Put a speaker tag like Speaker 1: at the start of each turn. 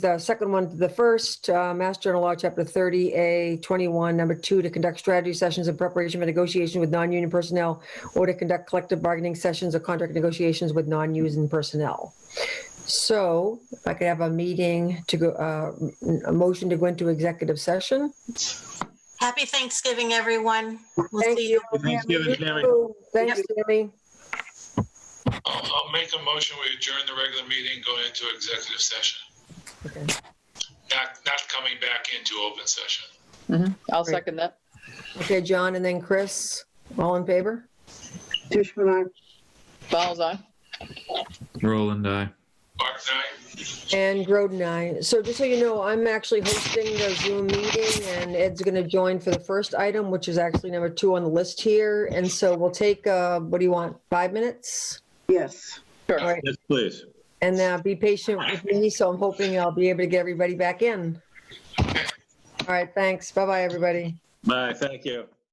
Speaker 1: the second one, to the first, uh, Mass General Law, Chapter 30A, 21, Number 2, to conduct strategy sessions in preparation for negotiation with non-union personnel or to conduct collective bargaining sessions or contract negotiations with non-union personnel. So if I could have a meeting to go, uh, m- a motion to go into executive session.
Speaker 2: Happy Thanksgiving, everyone. We'll
Speaker 1: Thank
Speaker 2: see you.
Speaker 3: Thanksgiving, Tammy.
Speaker 1: Thanks, Tammy.
Speaker 4: I'll, I'll make a motion, we adjourn the regular meeting, go into executive session,
Speaker 1: Okay.
Speaker 4: not, not coming back into open session.
Speaker 5: I'll
Speaker 1: Great.
Speaker 5: second that.
Speaker 1: Okay, John and then Chris, all in favor?
Speaker 6: Tishman, aye.
Speaker 5: Fowles eye.
Speaker 3: Roland, aye.
Speaker 4: Mark, aye?
Speaker 1: And Groden, I. So just so you know, I'm actually hosting the Zoom meeting and Ed's going to join for the first item, which is actually number two on the list here. And so we'll take, uh, what do you want, five minutes?
Speaker 6: Yes.
Speaker 1: All right.
Speaker 3: Yes, please.
Speaker 1: And uh, be patient with me, so I'm hoping I'll be able to get everybody back in. All right, thanks. Bye-bye, everybody.
Speaker 3: Bye, thank you.